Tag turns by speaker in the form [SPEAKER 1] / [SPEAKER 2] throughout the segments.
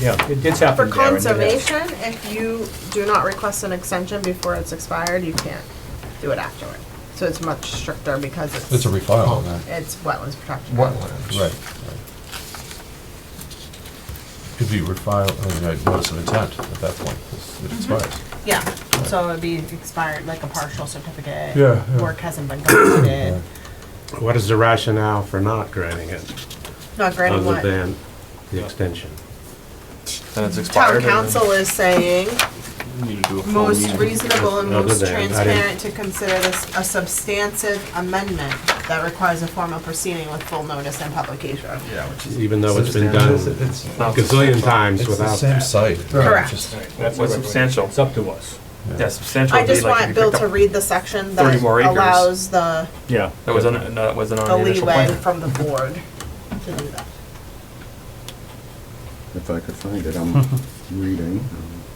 [SPEAKER 1] yeah, it- it's happened
[SPEAKER 2] For
[SPEAKER 1] there. and it has.
[SPEAKER 2] conservation, if you do not request an extension before it's expired, you can't do it afterward. So it's much stricter because it's.
[SPEAKER 3] It's a refile, man.
[SPEAKER 2] It's wetlands protection.
[SPEAKER 4] wetlands.
[SPEAKER 3] Right. right. Could be refiled, I mean, I notice of intent at that point, it's- it expires.
[SPEAKER 5] Yeah, so it'd be expired, like a partial certificate.
[SPEAKER 3] Yeah, yeah.
[SPEAKER 5] Work hasn't been completed.
[SPEAKER 6] What is the rationale for not granting it,
[SPEAKER 2] Not granting
[SPEAKER 6] other
[SPEAKER 2] what?
[SPEAKER 6] than the extension?
[SPEAKER 7] Then it's expired.
[SPEAKER 2] Town
[SPEAKER 7] and
[SPEAKER 2] council is saying,
[SPEAKER 7] you Need to do a full
[SPEAKER 2] most
[SPEAKER 7] meeting.
[SPEAKER 2] reasonable and
[SPEAKER 6] Other
[SPEAKER 2] most
[SPEAKER 6] than- I didn't-
[SPEAKER 2] transparent to consider this a substantive amendment that requires a formal proceeding with full notice and publication.
[SPEAKER 7] Yeah, which is,
[SPEAKER 6] Even though it's been done a
[SPEAKER 4] It's-
[SPEAKER 7] not
[SPEAKER 6] gazillion times
[SPEAKER 3] It's the
[SPEAKER 6] without
[SPEAKER 3] same
[SPEAKER 6] that.
[SPEAKER 3] site.
[SPEAKER 2] Correct.
[SPEAKER 3] Just-
[SPEAKER 1] That's
[SPEAKER 7] what's
[SPEAKER 1] what-
[SPEAKER 7] substantial?
[SPEAKER 1] It's up to us.
[SPEAKER 7] Yeah, substantial
[SPEAKER 2] I
[SPEAKER 7] would be
[SPEAKER 2] just
[SPEAKER 7] like if
[SPEAKER 2] want
[SPEAKER 7] you
[SPEAKER 2] Bill
[SPEAKER 7] picked
[SPEAKER 2] to
[SPEAKER 7] up-
[SPEAKER 2] read the section
[SPEAKER 7] 30
[SPEAKER 2] that
[SPEAKER 7] more acres.
[SPEAKER 2] allows the,
[SPEAKER 1] Yeah.
[SPEAKER 7] That wasn't, no, that wasn't on
[SPEAKER 2] the
[SPEAKER 7] the initial
[SPEAKER 2] leeway
[SPEAKER 7] plan.
[SPEAKER 2] from the board to do that.
[SPEAKER 8] If I could find it, I'm reading.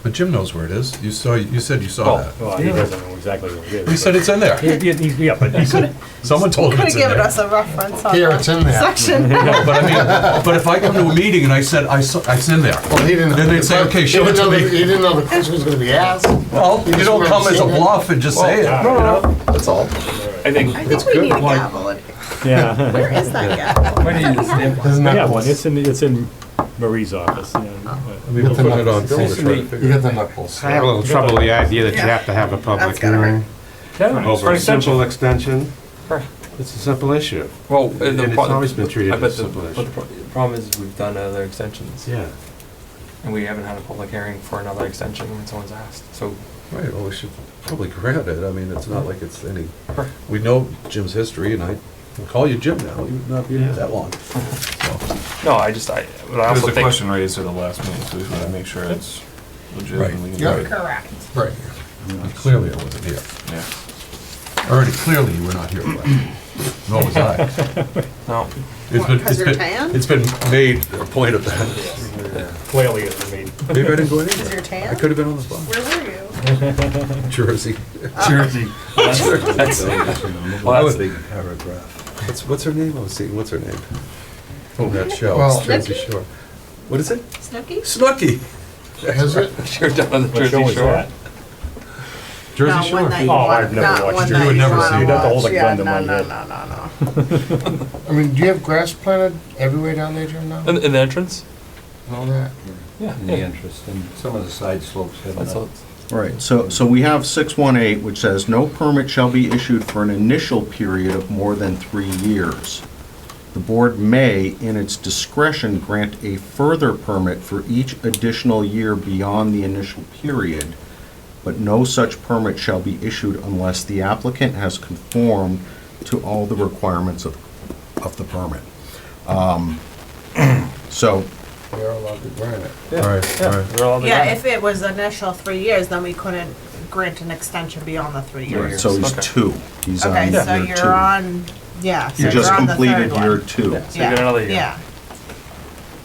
[SPEAKER 3] But Jim knows where it is. You saw, you said you saw
[SPEAKER 7] Oh,
[SPEAKER 3] that.
[SPEAKER 1] Well, he doesn't know exactly what it is.
[SPEAKER 3] He said it's in there.
[SPEAKER 1] He- he- he- Yeah, but he could,
[SPEAKER 3] Someone told him
[SPEAKER 2] Could have
[SPEAKER 3] it's in
[SPEAKER 2] given
[SPEAKER 3] there.
[SPEAKER 2] us a reference on
[SPEAKER 4] Here,
[SPEAKER 2] the
[SPEAKER 4] it's in there.
[SPEAKER 2] section.
[SPEAKER 3] No, but I mean, but if I come to a meeting and I said, I saw, it's in there.
[SPEAKER 4] Well, he didn't.
[SPEAKER 3] Then they'd say, okay, show
[SPEAKER 4] He
[SPEAKER 3] it
[SPEAKER 4] didn't
[SPEAKER 3] to
[SPEAKER 4] know the-
[SPEAKER 3] me.
[SPEAKER 4] He didn't know the question was gonna be asked.
[SPEAKER 3] Well, you don't come as a bluff and just say it, you
[SPEAKER 1] "Oh,
[SPEAKER 3] know? That's all.
[SPEAKER 7] I think,
[SPEAKER 2] I think we need a gavel. in-
[SPEAKER 1] yeah.
[SPEAKER 2] Where is that gavel?
[SPEAKER 4] Isn't
[SPEAKER 1] I
[SPEAKER 4] that
[SPEAKER 1] got one,
[SPEAKER 4] close?
[SPEAKER 1] it's in, it's in Marie's office, yeah.
[SPEAKER 3] Oh. We will put it on.
[SPEAKER 4] You got the knuckles.
[SPEAKER 6] I have a little trouble with the idea that you have to have a public
[SPEAKER 2] That's gotta hurt.
[SPEAKER 6] hearing over a simple extension.
[SPEAKER 7] For-
[SPEAKER 6] It's a simple issue.
[SPEAKER 7] well, and the
[SPEAKER 6] And it's
[SPEAKER 7] pro-
[SPEAKER 6] always been treated
[SPEAKER 7] I bet
[SPEAKER 6] as
[SPEAKER 7] the-
[SPEAKER 6] simple
[SPEAKER 7] But the
[SPEAKER 6] issue.
[SPEAKER 7] pro- the problem is, we've done other extensions,
[SPEAKER 6] Yeah.
[SPEAKER 7] and we haven't had a public hearing for another extension when someone's asked, so.
[SPEAKER 3] Right, well, we should probably grant it. I mean, it's not like it's any, we know Jim's history and I call you Jim now. You've not been here that long.
[SPEAKER 7] No, I just, I, but I There's also a think,
[SPEAKER 1] Question raised at the last
[SPEAKER 7] meeting, so we wanna make sure it's
[SPEAKER 3] Right,
[SPEAKER 4] Yeah,
[SPEAKER 5] Correct.
[SPEAKER 4] right.
[SPEAKER 3] And clearly I wasn't here.
[SPEAKER 7] Yeah.
[SPEAKER 3] Already, clearly you were not here, Glenn. Nor was I.
[SPEAKER 7] No,
[SPEAKER 3] It's
[SPEAKER 2] What,
[SPEAKER 3] been,
[SPEAKER 2] 'cause
[SPEAKER 3] it's
[SPEAKER 2] you're
[SPEAKER 3] been,
[SPEAKER 2] tan?
[SPEAKER 3] it's been made a point of that.
[SPEAKER 1] Clearly, it's me.
[SPEAKER 3] Maybe I didn't go
[SPEAKER 2] Is
[SPEAKER 3] anywhere.
[SPEAKER 2] your tan?
[SPEAKER 3] I could have been on the phone.
[SPEAKER 2] Where were you?
[SPEAKER 3] Jersey.
[SPEAKER 7] Jersey. That's,
[SPEAKER 3] That
[SPEAKER 7] well,
[SPEAKER 3] would be
[SPEAKER 7] that's,
[SPEAKER 3] paragraph. What's, what's her name? I was seeing, what's her name? Oh, that show,
[SPEAKER 4] Well-
[SPEAKER 3] it's Jersey Shore. What is it?
[SPEAKER 2] Snooki?
[SPEAKER 3] Snooki.
[SPEAKER 4] Has it?
[SPEAKER 7] sure, down the
[SPEAKER 1] What show
[SPEAKER 7] Jersey
[SPEAKER 1] is
[SPEAKER 7] Shore.
[SPEAKER 1] that?
[SPEAKER 3] Jersey
[SPEAKER 2] Not one
[SPEAKER 3] Shore.
[SPEAKER 2] that you
[SPEAKER 1] Oh,
[SPEAKER 2] want-
[SPEAKER 1] I've never
[SPEAKER 2] not
[SPEAKER 1] watched
[SPEAKER 2] one
[SPEAKER 1] it.
[SPEAKER 2] that
[SPEAKER 3] You would never
[SPEAKER 2] wanna
[SPEAKER 3] see it. You'd
[SPEAKER 1] have to hold
[SPEAKER 2] watch.
[SPEAKER 1] a
[SPEAKER 2] Yeah,
[SPEAKER 1] gun to
[SPEAKER 2] no,
[SPEAKER 1] my
[SPEAKER 2] no,
[SPEAKER 1] head.
[SPEAKER 2] no, no, no.
[SPEAKER 4] I mean, do you have grass planted everywhere down there, Jim, now?
[SPEAKER 7] In, in the entrance?
[SPEAKER 4] And all that?
[SPEAKER 7] Yeah.
[SPEAKER 9] in the interest, and some of the side slopes have
[SPEAKER 7] That's all.
[SPEAKER 9] enough.
[SPEAKER 8] Right, so, so we have 618, which says, "No permit shall be issued for an initial period of more than three years. The board may, in its discretion, grant a further permit for each additional year beyond the initial period, but no such permit shall be issued unless the applicant has conformed to all the requirements of, of the permit." Um, So,
[SPEAKER 4] We are allowed to grant it.
[SPEAKER 3] All right, all right.
[SPEAKER 7] They're all the
[SPEAKER 2] Yeah,
[SPEAKER 7] guys.
[SPEAKER 2] if it was initial three years, then we couldn't grant an extension beyond the three
[SPEAKER 8] right,
[SPEAKER 2] years.
[SPEAKER 8] so he's
[SPEAKER 7] Okay.
[SPEAKER 8] two. He's on
[SPEAKER 2] Okay,
[SPEAKER 8] year
[SPEAKER 2] so
[SPEAKER 8] two.
[SPEAKER 2] you're on, yeah, so
[SPEAKER 8] You
[SPEAKER 2] you're
[SPEAKER 8] just
[SPEAKER 2] on the
[SPEAKER 8] completed
[SPEAKER 2] third one.
[SPEAKER 8] year two.
[SPEAKER 7] So you got another year.
[SPEAKER 2] Yeah,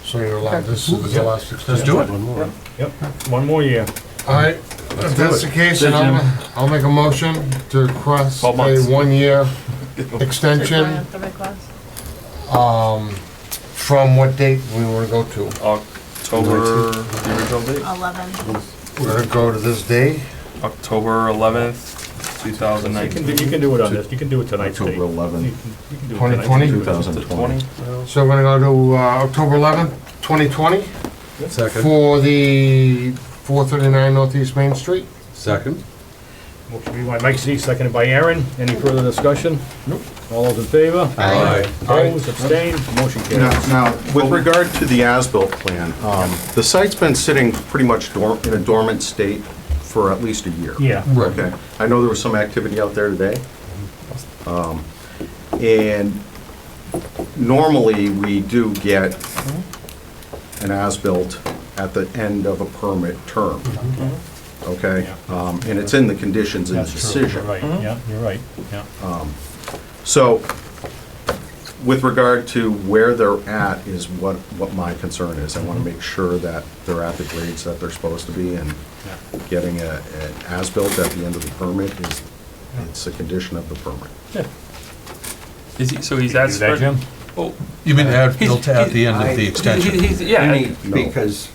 [SPEAKER 4] So you're allowed, this is the last extension.
[SPEAKER 3] Let's do it.
[SPEAKER 1] Yep, one more year.
[SPEAKER 4] All right, if that's the case, then I'll, I'll make a motion to request
[SPEAKER 7] Twelve
[SPEAKER 4] a
[SPEAKER 7] months.
[SPEAKER 4] one-year
[SPEAKER 2] yeah.
[SPEAKER 4] extension
[SPEAKER 2] The request.
[SPEAKER 4] from what date we wanna go to.
[SPEAKER 7] October, the original date?
[SPEAKER 2] Eleven.
[SPEAKER 4] We're gonna go to this day,
[SPEAKER 7] October eleventh, two thousand
[SPEAKER 1] You can, do-
[SPEAKER 7] nineteen.
[SPEAKER 1] you can do it on this, you can do it tonight, Steve.
[SPEAKER 8] October
[SPEAKER 1] You can-
[SPEAKER 8] 11th,
[SPEAKER 1] you can do it tonight.
[SPEAKER 4] 2020?
[SPEAKER 7] Twenty?
[SPEAKER 4] So we're gonna go to, uh, October eleventh, twenty twenty,
[SPEAKER 3] Second,
[SPEAKER 4] for the four thirty-nine Northeast Main Street.
[SPEAKER 3] second.
[SPEAKER 1] Motion made by Mike Z, seconded by Aaron. Any further discussion? Nope. All those in favor?
[SPEAKER 3] Aye.
[SPEAKER 1] Opposed, abstained, motion
[SPEAKER 8] Now,
[SPEAKER 1] carries.
[SPEAKER 8] now, with regard to the as-built plan, um, the site's been sitting pretty much dorm- in a dormant state for at least a year.
[SPEAKER 1] Yeah.
[SPEAKER 8] Okay, I know there was some activity out there today. Um, And normally, we do get an as-built at the end of a permit term. Okay? Um, And it's in the conditions in the
[SPEAKER 1] That's true, you're
[SPEAKER 8] decision.
[SPEAKER 1] right, yeah, you're right, yeah.
[SPEAKER 8] So, with regard to where they're at is what, what my concern is. I
[SPEAKER 1] Mm-hmm.
[SPEAKER 8] want to make sure that they're at the grades that they're supposed to be and getting a, an as-built at the end of the permit is, it's a condition of the permit.
[SPEAKER 7] Is he, so he's
[SPEAKER 1] You
[SPEAKER 7] at.
[SPEAKER 1] do that, Jim?
[SPEAKER 7] Oh,
[SPEAKER 3] You mean add,
[SPEAKER 7] he's-
[SPEAKER 3] built at the end of
[SPEAKER 9] I-
[SPEAKER 3] the
[SPEAKER 9] he-
[SPEAKER 3] extension?
[SPEAKER 7] he- he's- yeah, I-
[SPEAKER 9] Because